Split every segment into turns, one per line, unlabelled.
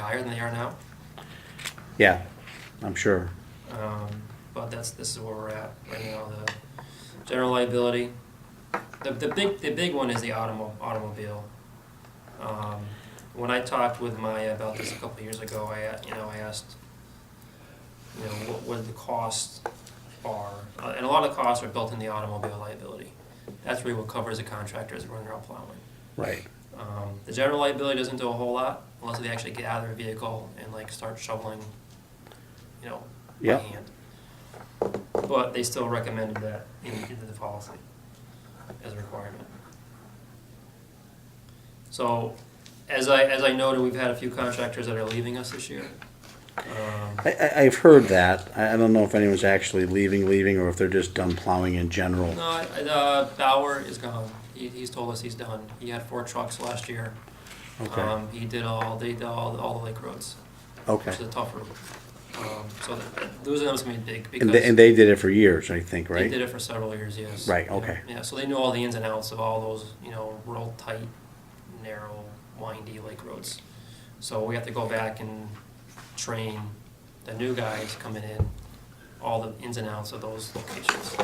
higher than they are now.
Yeah, I'm sure.
Um, But that's, this is where we're at right now, the general liability. The, the big, the big one is the automo- automobile. Um, When I talked with Maya about this a couple of years ago, I, a- you know, I asked, you know, what, what the costs are. Uh, And a lot of the costs are built in the automobile liability. That's really what covers the contractors when they're out plowing.
Right.
Um, the general liability doesn't do a whole lot unless they actually get out of their vehicle and like start shoveling, you know,
Yeah.
by hand. But they still recommended that in, into the policy as a requirement. So, as I, as I noted, we've had a few contractors that are leaving us this year. Um,
I, I, I've heard that. I, I don't know if anyone's actually leaving, leaving, or if they're just done plowing in general.
no, I- uh, Bauer is gone. He, he's told us he's done. He had four trucks last year.
Okay.
Um, he did all, they did all, all the lake roads.
Okay.
Which is a tough route. Um, so that, losing them is gonna be big
And they,
because
and they did it for years, I think,
they
right?
did it for several years, yes.
Right,
Yeah,
okay.
Yeah, so they knew all the ins and outs of all those, you know, real tight, narrow, windy lake roads. So we have to go back and train the new guys coming in, all the ins and outs of those locations.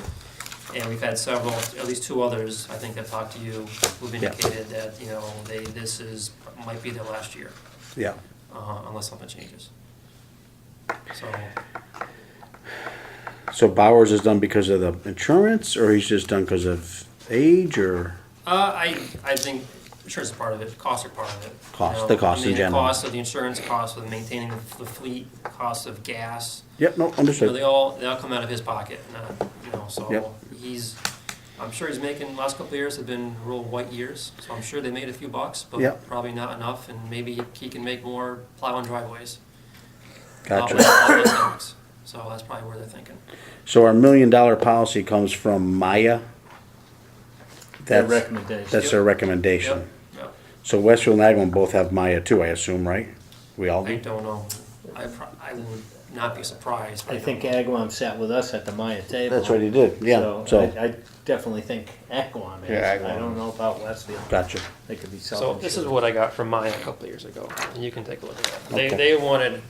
And we've had several, at least two others, I think that talked to you, who've
Yeah.
indicated that, you know, they, this is, might be their last year
Yeah.
uh, unless something changes. So,
So Bowers is done because of the insurance, or he's just done because of age, or?
uh, I, I think insurance is part of it, costs are part of it. you
Cost,
know.
the cost
I mean,
in general.
The cost of the insurance, cost of maintaining the fleet, cost of gas,
Yep, no,
you know, they
understood.
all, they all come out of his pocket, not, you know,
Yep.
so he's, I'm sure he's making, last couple of years have been real white years, so I'm sure they made a few bucks, but
Yep.
probably not enough, and maybe he can make more plowing driveways.
Gotcha.
all those- all those things. So that's probably where they're thinking.
So our million dollar policy comes from Maya?
Their
That's,
recommendation.
that's their
Yep,
recommendation.
yep.
So Westfield and Agawam both have Maya too, I assume, right? We all
I
do?
don't know. I, pro- I would not be surprised. but
I think
don't-
Agawam sat with us at the Maya table.
That's what he did, yeah, so,
I, I definitely think Agawam is.
Yeah, Agawam.
I don't know about Westfield.
gotcha.
They could be self.
So this is what I got from mine a couple of years ago, and you can take a look at that. They,
Okay.
they wanted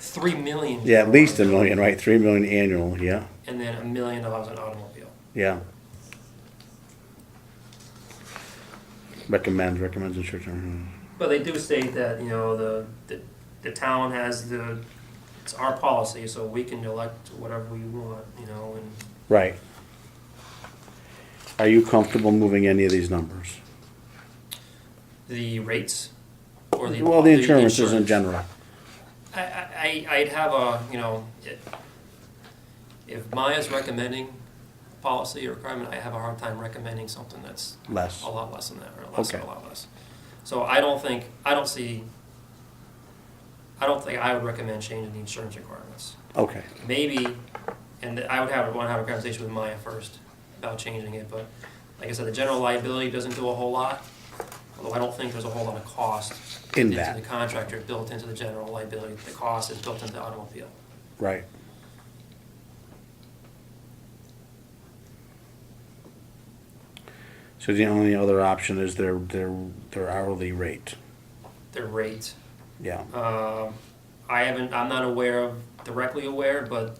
three million.
Yeah, at least a million, right? Three million annual, yeah,
And then a million dollars in automobile.
yeah. Recommends, recommends insurance. mhm.
But they do state that, you know, the, the, the town has the, it's our policy, so we can elect whatever we want, you know, and
Right. Are you comfortable moving any of these numbers?
the rates. or
Well, the insurance is in
insurance.
general.
I, I, I- I'd have a, you know, it- if Maya's recommending policy or requirement, I have a hard time recommending something that's
Less.
a lot less than that, or less, or a
Okay.
lot less. So I don't think, I don't see, I don't think I would recommend changing the insurance requirements.
Okay,
Maybe, and I would have, want to have a conversation with Maya first about changing it, but like I said, the general liability doesn't do a whole lot, although I don't think there's a whole lot of cost
in
into
that,
the contractor built into the general liability, the cost is built into the automobile.
right. So the only other option is their, their, their hourly rate,
The rate,
yeah.
um, I haven't, I'm not aware of, directly aware, but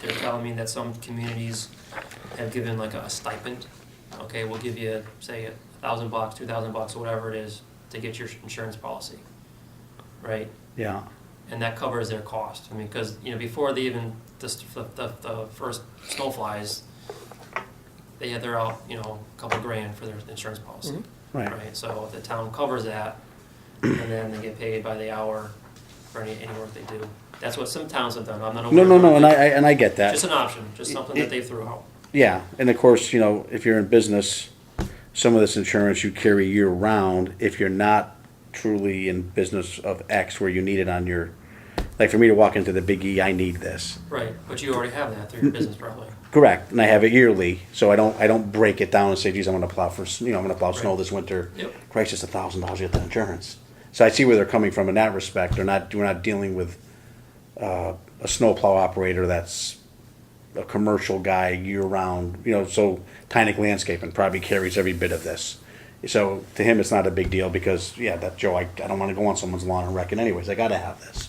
they're telling me that some communities have given like a stipend. Okay, we'll give you, say, a thousand bucks, two thousand bucks, or whatever it is, to get your insurance policy, right?
Yeah,
and that covers their cost. I mean, because, you know, before they even, just the, the, the first snow flies, they had, they're out, you know, a couple grand for their insurance policy.
Right.
So if the town covers that, and then they get paid by the hour for any, any work they do. That's what some towns have done, I'm not
no,
aware.
no,
of
no, and I,
it.
I- and I get that.
Just an option, just something
It-
that they threw out.
Yeah, and of course, you know, if you're in business, some of this insurance you carry year round. If you're not truly in business of X where you need it on your, like for me to walk into the Big E, I need this.
Right, but you already have that through
Mm-hmm.
your business probably.
Correct, and I have it yearly, so I don't, I don't break it down and say, geez, I'm gonna plow for, s- you know, I'm gonna plow snow
Right.
this winter.
Yep.
Christ, it's a thousand dollars to get the insurance. So I see where they're coming from in that respect. They're not, we're not dealing with, uh, a snowplow operator that's a commercial guy year round, you know, so Tynick Landscaping probably carries every bit of this. So to him, it's not a big deal because, yeah, that Joe, I, I don't want to go on someone's lawn and wreck it anyways. I got to have this.